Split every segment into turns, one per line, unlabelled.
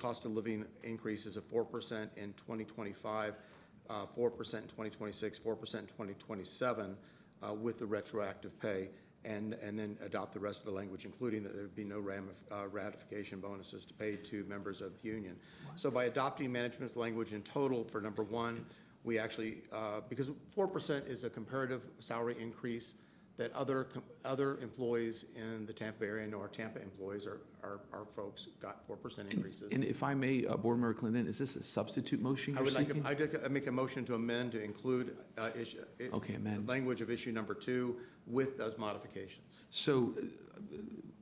cost of living increases of four percent in twenty twenty-five, uh, four percent in twenty twenty-six, four percent in twenty twenty-seven, uh, with the retroactive pay, and, and then adopt the rest of the language, including that there'd be no ramif- uh, ratification bonuses to pay to members of the union. So by adopting management's language in total for number one, we actually, uh, because four percent is a comparative salary increase that other, com- other employees in the Tampa area, and our Tampa employees, our, our our folks got four percent increases.
And if I may, uh, Board Member Clinton, is this a substitute motion
I
you're
would like,
seeking?
I'd like to make a motion to amend to include uh, issue. it-
Okay, amend.
Language of issue number two with those modifications.
So uh,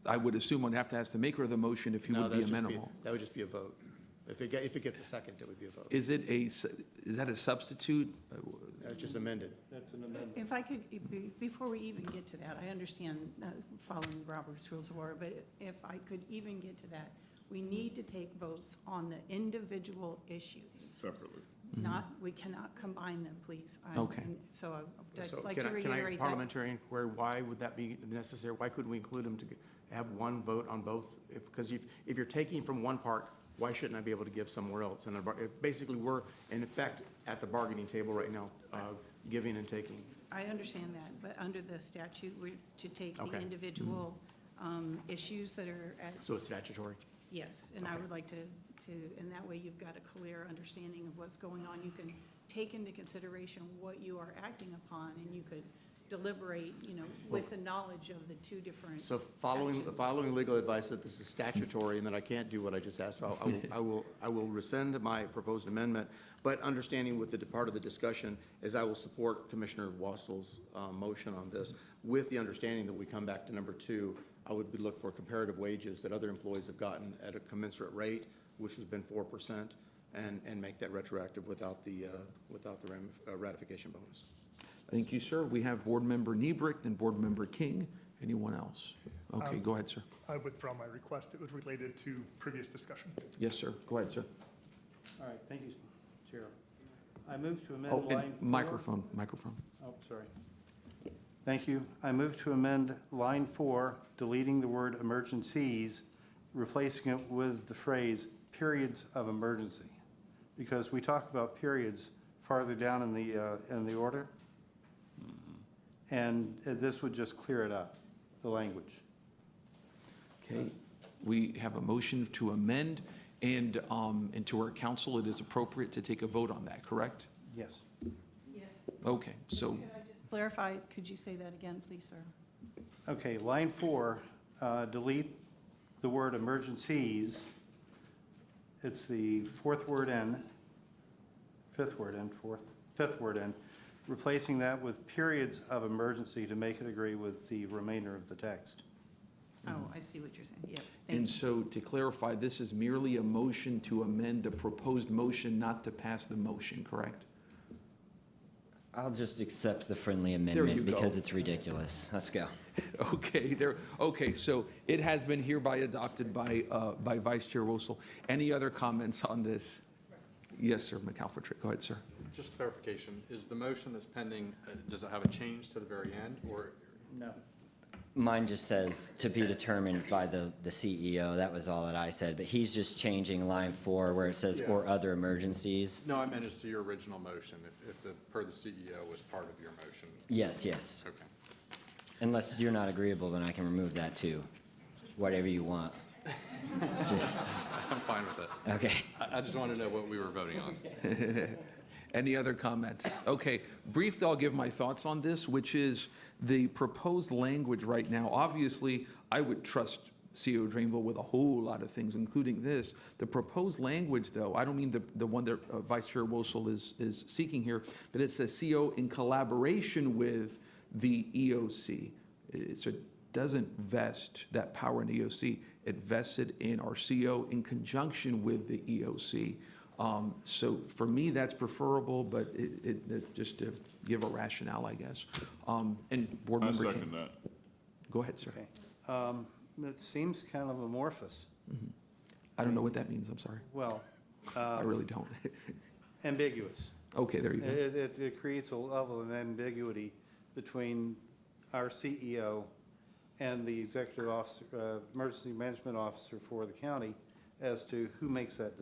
I would assume I'd have to ask the maker of the motion if he
No,
would be
that's just
amenable.
That would just be a vote. If it, ge- if it gets a second, it would be a vote.
Is it a, s- is that a substitute? Uh, w-
It's just amended.
If I could, if- be- before we even get to that, I understand uh, following Robert's Rules of Order, but if I could even get to that, we need to take votes on the individual issues. Separately. Not, we cannot combine them, please. I-
Okay.
and So I would
So
just like
can
to
I- can I
reiterate that.
Parliamentary inquiry, why would that be necessary? Why couldn't we include them to g- have one vote on both? If, because if, if you're taking from one part, why shouldn't I be able to give somewhere else? And a bar- it- basically, we're in effect at the bargaining table right now, uh, giving and taking.
I understand that, but under the statute, we're to take the
Okay. Mm-hmm.
individual um, issues that are at,
So it's statutory.
yes. And I would like to, to, and that way you've got a clear understanding of what's going on. You can take into consideration what you are acting upon, and you could deliberate, you know, with the knowledge of the two different.
So following,
actions.
following legal advice that this is statutory and that I can't do what I just asked, I'll- I will, I will, I will rescind my proposed amendment, but understanding with the part of the discussion is I will support Commissioner Wastel's uh, motion on this with the understanding that we come back to number two, I would be- look for comparative wages that other employees have gotten at a commensurate rate, which has been four percent, and, and make that retroactive without the, uh, without the ram- uh, ratification bonus.
Thank you, sir. We have Board Member Niebrick, then Board Member King. Anyone else? Okay, go ahead, sir.
I withdraw my request. It was related to previous discussion.
Yes, sir. Go ahead, sir.
All right, thank you, Chair. I move to
Oh,
amend line
and
four.
microphone, microphone.
Oh, sorry. Thank you. I move to amend line four, deleting the word emergencies, replacing it with the phrase periods of emergency. Because we talk about periods farther down in the, uh, in the order.
Mm-hmm.
And uh, this would just clear it up, the language.
Okay, we have a motion to amend, and, um, and to our council, it is appropriate to take a vote on that, correct?
Yes.
Yes.
Okay, so,
Could I just clarify, could you say that again, please, sir?
Okay, line four, uh, delete the word emergencies. It's the fourth word in, fifth word in, fourth, fifth word in, replacing that with periods of emergency to make it agree with the remainder of the text.
Mm-hmm.
Oh, I see what you're saying. Yes, thank you.
and so to clarify, this is merely a motion to amend a proposed motion, not to pass the motion, correct?
I'll just accept the friendly
you
amendment
go.
because it's ridiculous. Let's go.
Okay, there, okay, so it has been hereby adopted by, uh, by Vice Chair Wosel. Any other comments on this? Yes, sir, McAlpatrick, go ahead, sir.
Just clarification, is the motion that's pending, uh, does it have a change to the very end, or
No.
Mine just says to be determined by the, the CEO. That was all that I said, but he's just changing line four where it says
Yeah.
or other emergencies.
No, I meant as to your original motion, if, if the, per the CEO was part of your motion.
Yes, yes.
Okay.
Unless you're not agreeable, then I can remove that too. Whatever you want. Just,
I'm fine with it.
okay.
I, I just wanted to know what we were voting on.
Any other comments? Okay, briefly, I'll give my thoughts on this, which is the proposed language right now. Obviously, I would trust CEO Drainville with a whole lot of things, including this. The proposed language, though, I don't mean the, the one that uh, Vice Chair Wosel is, is seeking here, but it says CEO E in collaboration with the EOC. It- So it doesn't vest that power in the EOC. It vested in our CEO in conjunction with the EOC. Um, So for me, that's preferable, but it, it- it- just to give a rationale, I guess. Um, And Board
I
Member King.
second that.
Go ahead, sir.
Okay. Um, It seems kind of amorphous.
I don't know what that means, I'm sorry.
Well, uh,
I really don't.
ambiguous.
Okay, there you go.
It, it, it creates a level of ambiguity between our E CEO and the executive officer, uh, emergency management officer for the county as to who makes that